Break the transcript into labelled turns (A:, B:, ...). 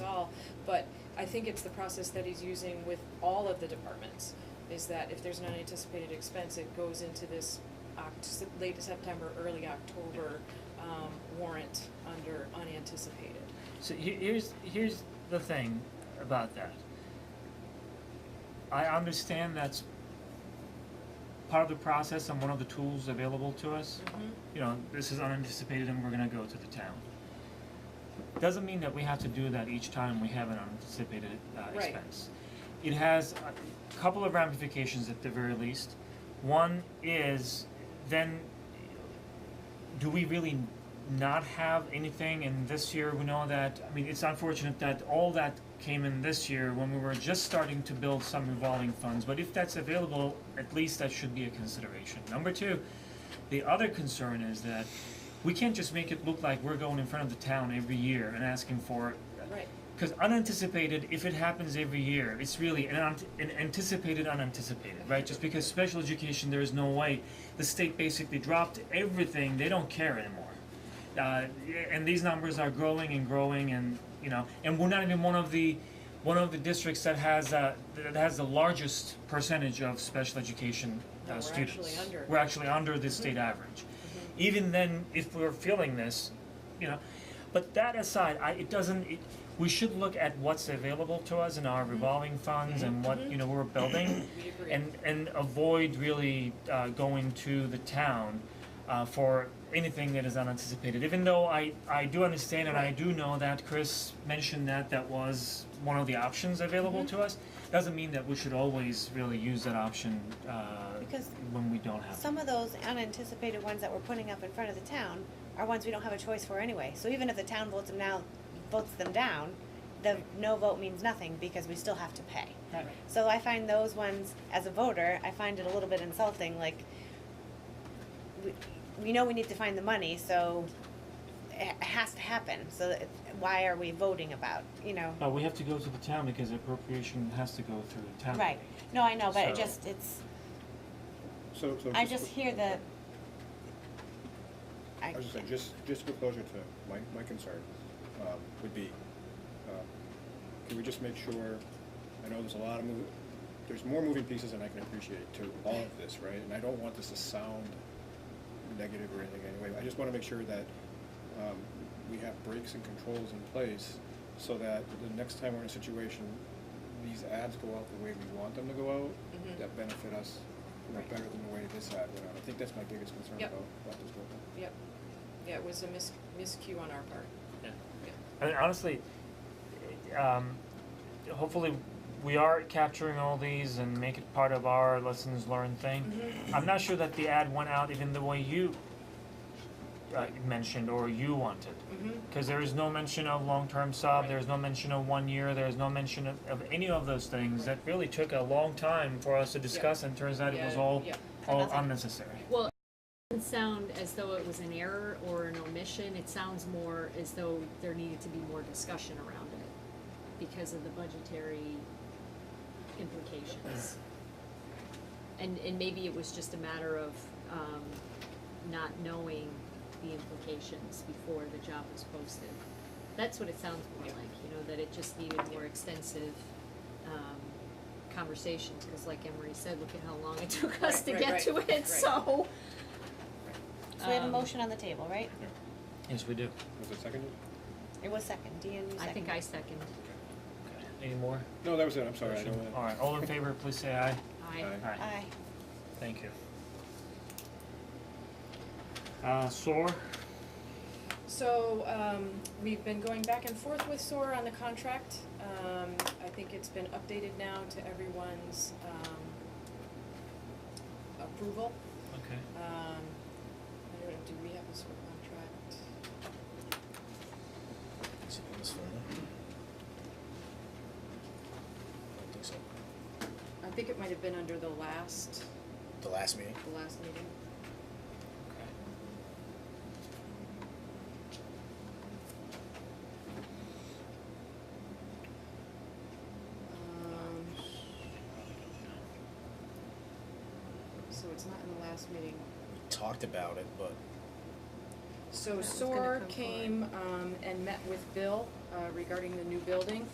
A: But I think it's the process that he's using with all of the departments, is that if there's an unanticipated expense, it goes into this Oct- late September, early October, um, warrant under unanticipated.
B: So he- here's here's the thing about that. I understand that's part of the process and one of the tools available to us. You know, this is unanticipated and we're gonna go to the town. Doesn't mean that we have to do that each time we have an unanticipated uh
A: Right.
B: expense. It has a couple of ramifications at the very least. One is then do we really not have anything in this year? We know that, I mean, it's unfortunate that all that came in this year when we were just starting to build some revolving funds, but if that's available, at least that should be a consideration. Number two, the other concern is that we can't just make it look like we're going in front of the town every year and asking for
A: Right,
B: because unanticipated, if it happens every year, it's really an, un- an anticipated unanticipated, right? Just because special education, there is no way. The state basically dropped everything; they don't care anymore. Uh, yeah, and these numbers are growing and growing, and you know, and we're not even one of the one of the districts that has uh, that has the largest percentage of special education
A: No,
B: uh,
A: we're
B: students.
A: actually under. Mm-hmm.
B: We're actually under the state average. Even then, if we're feeling this, you know, but that aside, I, it doesn't, it, we should look at what's available to us in
C: Mm-hmm.
B: our revolving funds and what, you know, we're building.
A: we agree.
B: And, and avoid really, uh, going to the town, uh, for anything that is unanticipated, even though I, I do understand and I do know that Chris mentioned that that was one of the options available
C: Mm-hmm.
B: to us. Doesn't mean that we should always really use that option, uh,
C: Because
B: when we don't have it.
C: Some of those unanticipated ones that we're putting up in front of the town are ones we don't have a choice for anyway. So even if the town votes them now, votes them down, the no vote means nothing because we still have to pay.
B: Right.
C: So I find those ones, as a voter, I find it a little bit insulting, like, we, we know we need to find the money, so it it has to happen, so it- why are we voting about, you know?
B: Uh, we have to go to the town because appropriation has to go through the town.
C: Right, no, I know, but it
B: So-
C: just, it's,
D: So, so.
C: I just hear the, I,
D: I was just saying, just, just for closure to my, my concern, um, would be, uh, can we just make sure, I know there's a lot of mov- there's more moving pieces than I can appreciate to all of this, right? And I don't want this to sound negative or anything anyway, I just wanna make sure that, um, we have breaks and controls in place so that the next time we're in a situation, these ads go out the way we want them to go out,
A: Mhm.
D: that benefit us, you know,
A: Right.
D: better than the way this ad went out. I think that's my biggest concern
A: Yep.
D: about, about this whole thing.
A: Yep, yeah, it was a mis- miscue on our part, yeah.
B: I mean, honestly, um, hopefully we are capturing all these and make it part of our lessons learned thing.
A: Mm-hmm.
B: I'm not sure that the ad went out even the way you uh, mentioned or you wanted.
A: Mm-hmm.
B: Because there is no mention of long-term sub, there is no mention of one year, there is no mention of, of any of those things that really took a long time for us to discuss and turns out it was
A: Yeah,
B: all,
A: yeah.
B: all
C: Nothing.
B: unnecessary.
E: Well, it doesn't sound as though it was an error or an omission, it sounds more as though there needed to be more discussion around it because of the budgetary implications. And, and maybe it was just a matter of, um, not knowing the implications before the job was posted. That's what it sounds more like, you know, that it just needed more extensive, um, conversations, cause like Emery said, look at how long it took us
A: Right,
E: to
A: right,
E: get
A: right,
E: to
A: right.
E: it, so.
C: so we have a
E: Um,
C: motion on the table, right?
B: Yes, we do.
D: Was it seconded?
C: It was second, Deanne, you seconded.
E: I think I second,
B: Any more?
D: No, that was it, I'm sorry, I don't want
B: All right, all in favor, please say aye.
E: I,
D: Aye.
B: Aye.
C: Aye.
B: Thank you. Uh, SOAR,
A: So, um, we've been going back and forth with SOAR on the contract. Um, I think it's been updated now to everyone's, um, approval.
B: okay.
A: Um, I don't know, do we have a SOAR contract?
F: Is it in this folder? I don't think so.
A: I think it might have been under the last,
F: The last meeting?
A: the last meeting. Um, so it's not in the last meeting.
F: We talked about it, but
A: So
E: was gonna
A: SOAR
E: come forward.
A: came, um, and met with Bill, uh, regarding the new building.